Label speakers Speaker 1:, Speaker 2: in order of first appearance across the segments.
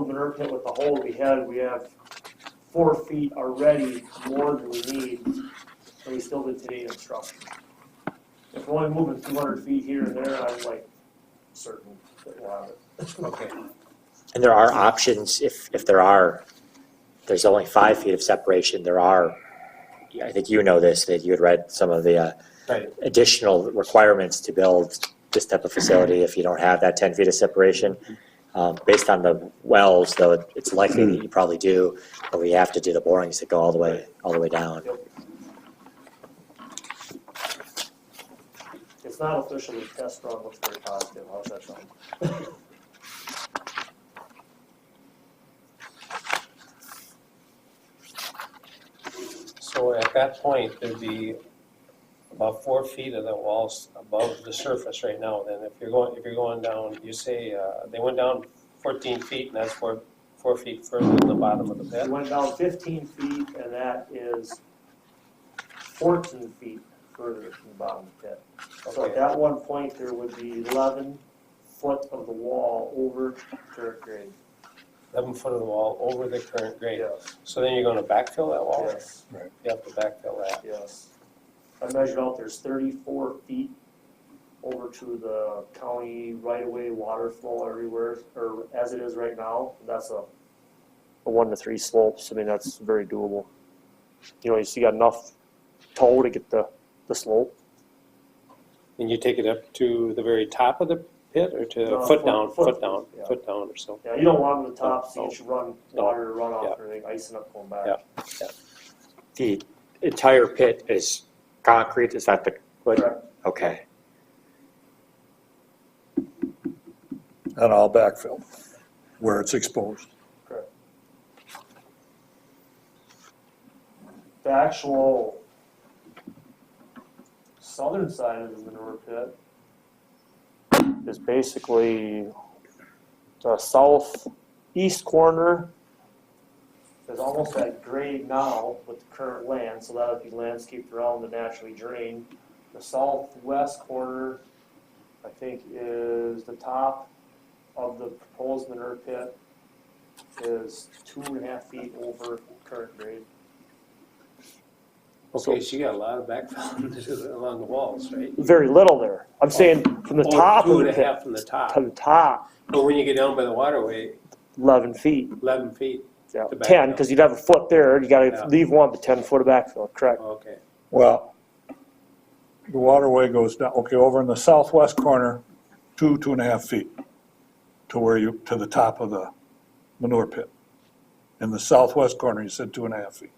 Speaker 1: curb pit with the hole we had, we have four feet already more than we need, and we still did today obstruction. If we're only moving two hundred feet here and there, I'm like certain that we'll have it.
Speaker 2: Okay,
Speaker 3: And there are options, if, if there are, there's only five feet of separation, there are, I think you know this, that you had read some of the uh,
Speaker 2: right,
Speaker 3: additional requirements to build this type of facility if you don't have that 10 feet of separation. Um, Based on the wells, though, it's likely that you probably do, but we have to do the borings that go all the way, all the way down.
Speaker 1: It's not officially a test run, looks very positive, how's that sound?
Speaker 2: so at that point, there'd be about four feet of the walls above the surface right now, then if you're going, if you're going down, you say, uh, they went down fourteen feet, and that's four, four feet further than the bottom of the
Speaker 1: We
Speaker 2: pit.
Speaker 1: went down fifteen feet, and that is fourteen feet further from the bottom of the pit. So at
Speaker 2: Okay,
Speaker 1: that one point, there would be eleven foot of the wall over current grade.
Speaker 2: eleven foot of the wall over the current grade,
Speaker 1: Yes,
Speaker 2: so then you're gonna backfill that wall?
Speaker 1: yes,
Speaker 2: You have to backfill that,
Speaker 1: yes. I measured out, there's thirty-four feet over to the county right-of-way water flow everywhere, or as it is right now, that's a a one to three slopes, I mean, that's very doable. You know, you see, got enough toe to get the, the slope.
Speaker 2: and you take it up to the very top of the pit, or
Speaker 1: No,
Speaker 2: to,
Speaker 1: foot-
Speaker 2: foot down,
Speaker 1: foot,
Speaker 2: foot down,
Speaker 1: yeah.
Speaker 2: foot down or so?
Speaker 1: Yeah, you don't want them to top, so
Speaker 2: No.
Speaker 1: you should run
Speaker 2: No.
Speaker 1: water runoff or
Speaker 2: Yeah.
Speaker 1: anything, icing up going back.
Speaker 2: Yeah.
Speaker 3: The entire pit is concrete, is that the,
Speaker 1: Correct.
Speaker 3: okay.
Speaker 4: and I'll backfill where it's exposed.
Speaker 1: the actual southern side of the manure pit is basically the southeast corner is almost at grade now with the current land, so that would be landscaped around and naturally drained. The southwest corner, I think, is the top of the proposed manure pit is two and a half feet over current grade.
Speaker 2: Okay, so you got a lot of backfill to do along the walls, right?
Speaker 1: very little there. I'm saying from the
Speaker 2: Oh,
Speaker 1: top of
Speaker 2: Two and
Speaker 1: the
Speaker 2: a
Speaker 1: pit
Speaker 2: half from the
Speaker 1: to
Speaker 2: top,
Speaker 1: the top,
Speaker 2: but when you get down by the waterway,
Speaker 1: eleven feet,
Speaker 2: eleven feet,
Speaker 1: yeah,
Speaker 2: To back
Speaker 1: ten,
Speaker 2: down.
Speaker 1: because you'd have a foot there, you
Speaker 2: Yeah.
Speaker 1: gotta leave one, but ten foot of backfill, correct.
Speaker 2: okay.
Speaker 4: Well, the waterway goes down, okay, over in the southwest corner, two, two and a half feet to where you, to the top of the manure pit. In the southwest corner, you said two and a half feet.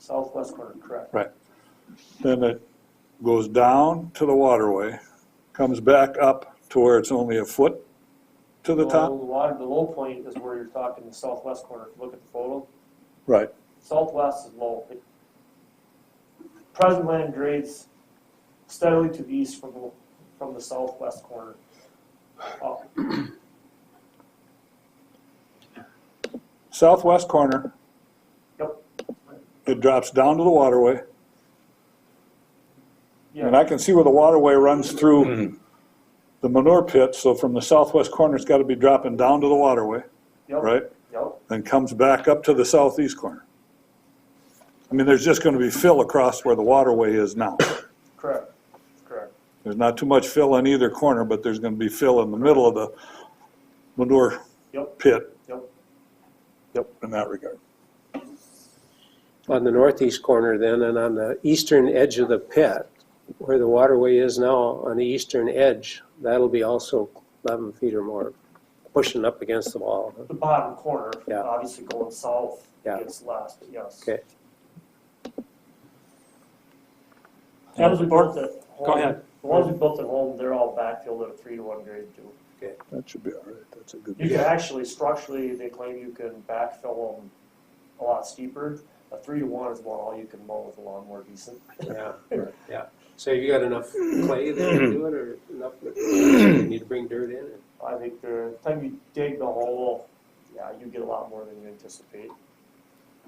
Speaker 1: Southwest corner, correct.
Speaker 4: Then it goes down to the waterway, comes back up to where it's only a foot to the
Speaker 1: Well,
Speaker 4: top.
Speaker 1: The water, the low point is where you're talking, the southwest corner, if you look at the photo,
Speaker 4: Right,
Speaker 1: southwest is low. It- Present land grades steadily to the east from, the from the southwest corner. Uh, up.
Speaker 4: southwest corner.
Speaker 1: Yep.
Speaker 4: It drops down to the waterway. And
Speaker 1: Yeah,
Speaker 4: I can see where the waterway runs through the manure pit, so from the southwest corner, it's gotta be dropping down to the waterway,
Speaker 1: yep,
Speaker 4: right?
Speaker 1: yep,
Speaker 4: Then comes back up to the southeast corner. I mean, there's just gonna be fill across where the waterway is now.
Speaker 1: correct, correct.
Speaker 4: There's not too much fill on either corner, but there's gonna be fill in the middle of the manure
Speaker 1: Yep.
Speaker 4: pit.
Speaker 1: Yep.
Speaker 4: Yep, in that regard.
Speaker 2: On the northeast corner then, and on the eastern edge of the pit, where the waterway is now, on the eastern edge, that'll be also eleven feet or more, pushing up against the wall.
Speaker 1: The bottom corner,
Speaker 2: Yeah.
Speaker 1: obviously going south
Speaker 2: Yeah.
Speaker 1: gets less, but yes.
Speaker 2: Okay.
Speaker 1: The ones we built at home.
Speaker 2: Go ahead.
Speaker 1: The ones we built at home, they're all backfilled at a three to one grade too.
Speaker 4: That should be all right, that's a good.
Speaker 1: You can actually, structurally, they claim you can backfill them a lot steeper. A three to one is about all you can mow with a lawnmower decent.
Speaker 2: Yeah, yeah. So you got enough clay there to do it, or enough, you need to bring dirt in?
Speaker 1: I think the time you dig the hole, yeah, you get a lot more than you anticipate.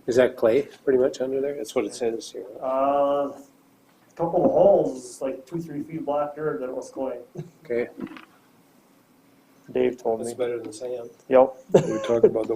Speaker 2: Is that clay pretty much under there? That's what it says here.
Speaker 1: Uh, a couple of holes, like two, three feet of black dirt, then it was going.
Speaker 2: Okay.
Speaker 1: Dave told
Speaker 5: That's
Speaker 1: me.
Speaker 5: better than sand.
Speaker 1: Yep.
Speaker 2: We talked about the